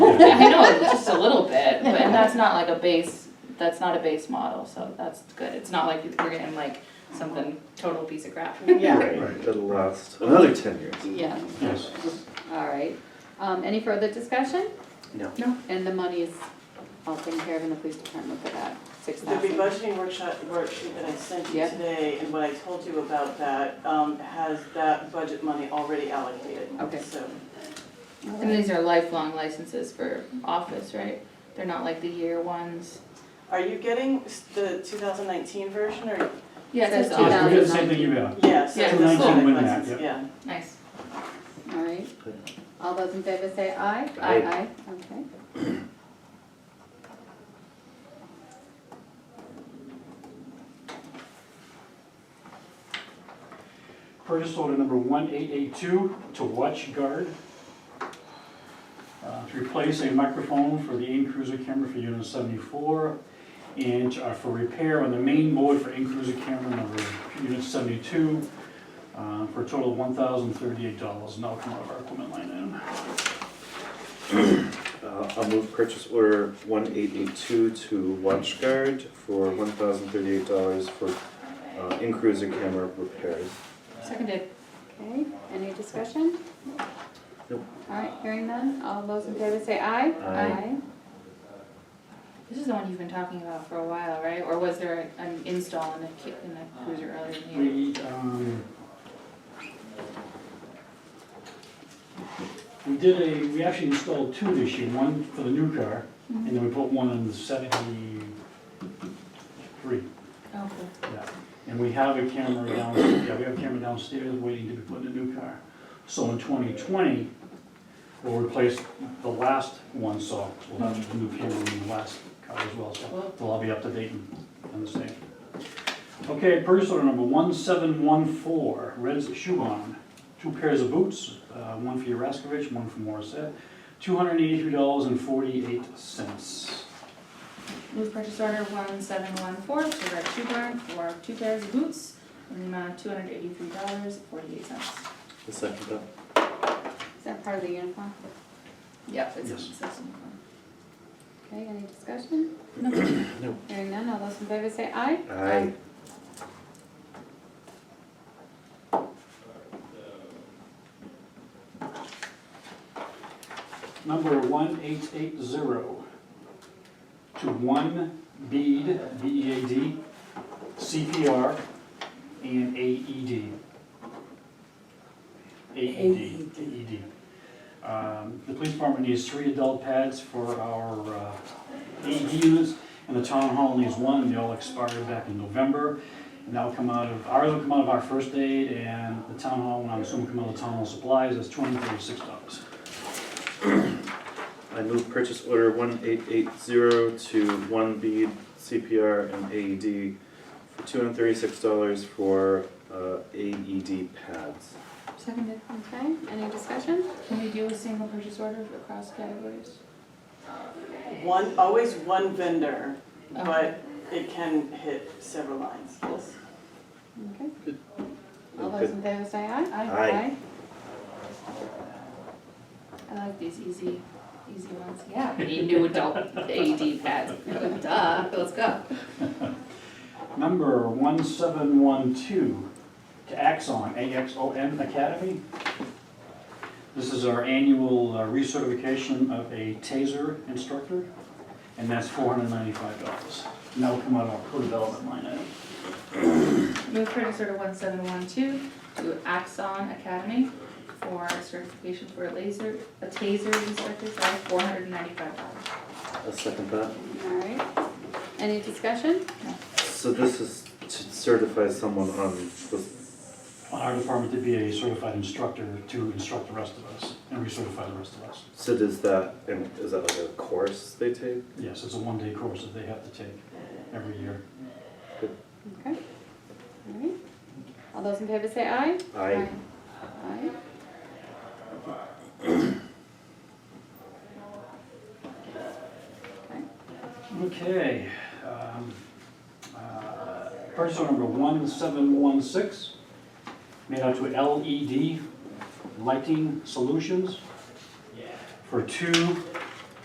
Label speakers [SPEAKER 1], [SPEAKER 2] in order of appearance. [SPEAKER 1] that's not like a base, that's not a base model, so that's good. It's not like we're getting like something total piece of crap.
[SPEAKER 2] Yeah,
[SPEAKER 3] Right, that'll last another ten years.
[SPEAKER 1] Yeah.
[SPEAKER 3] Yes.
[SPEAKER 2] all right. Um, any further discussion?
[SPEAKER 3] No.
[SPEAKER 1] No.
[SPEAKER 2] And the money is all taken care of in the police department for that, six
[SPEAKER 4] The
[SPEAKER 2] thousand.
[SPEAKER 4] rebudgeting workshop, worksheet that I sent you
[SPEAKER 2] Yeah.
[SPEAKER 4] today and what I told you about that, um, has that budget money already allocated.
[SPEAKER 2] Okay.
[SPEAKER 4] So,
[SPEAKER 1] And these are lifelong licenses for office, right? They're not like the year ones.
[SPEAKER 4] are you getting s- the two thousand nineteen version or,
[SPEAKER 1] Yeah, it says
[SPEAKER 2] Says
[SPEAKER 1] office.
[SPEAKER 5] Yes, we did the same thing you got.
[SPEAKER 4] yeah, so
[SPEAKER 1] Yeah,
[SPEAKER 4] the
[SPEAKER 1] it's
[SPEAKER 4] same
[SPEAKER 5] cool. Win that,
[SPEAKER 4] license,
[SPEAKER 5] yep.
[SPEAKER 4] yeah.
[SPEAKER 1] Nice.
[SPEAKER 2] All right, all those in favor say aye?
[SPEAKER 3] Aye.
[SPEAKER 2] Aye, okay.
[SPEAKER 5] Purchase order number 1882 to Watch Guard. uh, To replace a microphone for the in cruiser camera for unit 74 and uh, for repair on the main board for in cruiser camera number unit 72 uh, for a total of $1,038. Now come out of our equipment line item.
[SPEAKER 3] Uh, I'll move purchase order one eight eight two to WatchGuard for one thousand thirty-eight dollars for uh, in-cruiser camera repairs.
[SPEAKER 1] Seconded.
[SPEAKER 2] Okay, any discussion?
[SPEAKER 3] Nope.
[SPEAKER 2] All right, hearing none, all those in favor say aye?
[SPEAKER 3] Aye.
[SPEAKER 1] This is the one you've been talking about for a while, right? Or was there an install in the, ki- in the cruiser earlier in the year?
[SPEAKER 5] We, um, we did a, we actually installed two this year, one for the new car, and then we put one in the seventy-three.
[SPEAKER 1] Oh,
[SPEAKER 5] yeah. And we have a camera downstairs, yeah, we have a camera downstairs waiting to be put in the new car. So in twenty twenty, we'll replace the last one, so we'll have the new camera in the last car as well, so they'll all be up to date and and the same. Okay, purchase order number one seven one four, Red's Shoe Barn. Two pairs of boots, uh, one for Yaroskovich, one for Morissette, two hundred and eighty-three dollars and forty-eight cents.
[SPEAKER 1] Move purchase order one seven one four to Red Shoe Barn for two pairs of boots in the amount of two hundred eighty-three dollars forty-eight cents.
[SPEAKER 3] The second that.
[SPEAKER 2] Is that part of the uniform?
[SPEAKER 1] Yep, it's,
[SPEAKER 5] Yes.
[SPEAKER 1] it's, it's.
[SPEAKER 2] Okay, any discussion?
[SPEAKER 3] No.
[SPEAKER 2] Hearing none, all those in favor say aye?
[SPEAKER 3] Aye.
[SPEAKER 5] Number one eight eight zero to one bead, B E A D, CPR and E AED. AED, AED. E Um, The police department needs three adult pads for our uh, AED units, and the town hall needs one, and they all expired back in November. And that'll come out of, ours will come out of our first aid, and the town hall, and I'm assuming come out of town hall supplies, that's two hundred and thirty-six dollars.
[SPEAKER 3] I move purchase order one eight eight zero to one bead CPR and AED for two hundred thirty-six dollars for uh, AED pads.
[SPEAKER 1] Seconded.
[SPEAKER 2] Okay, any discussion?
[SPEAKER 1] Can we do a single purchase order for across categories?
[SPEAKER 4] One, always one vendor,
[SPEAKER 1] Okay.
[SPEAKER 4] but it can hit several lines, yes.
[SPEAKER 2] Okay. All those in favor say aye?
[SPEAKER 3] Aye.
[SPEAKER 1] I like these easy, easy ones. Yeah, we need new adult AED pads. Duh, let's go.
[SPEAKER 5] Number 1712 to Axon, A-X-O-N Academy. This is our annual uh, recertification of a TASER instructor, and that's $495. And that'll come out of our co-development line item.
[SPEAKER 1] Move purchase order one seven one two to Axon Academy for certification for a laser, a taser instructor for four hundred and ninety-five dollars.
[SPEAKER 3] I'll second that.
[SPEAKER 2] All right, any discussion?
[SPEAKER 3] So this is to certify someone on the,
[SPEAKER 5] On our department to be a certified instructor to instruct the rest of us and recertify the rest of us.
[SPEAKER 3] so does that, and is that like a course they take?
[SPEAKER 5] Yes, it's a one-day course that they have to take every year.
[SPEAKER 2] Okay. All right, all those in favor say aye?
[SPEAKER 3] I,
[SPEAKER 2] Aye. Okay.
[SPEAKER 5] Okay, um, uh, purchase order number 1716, made out to E LED Lighting Solutions for two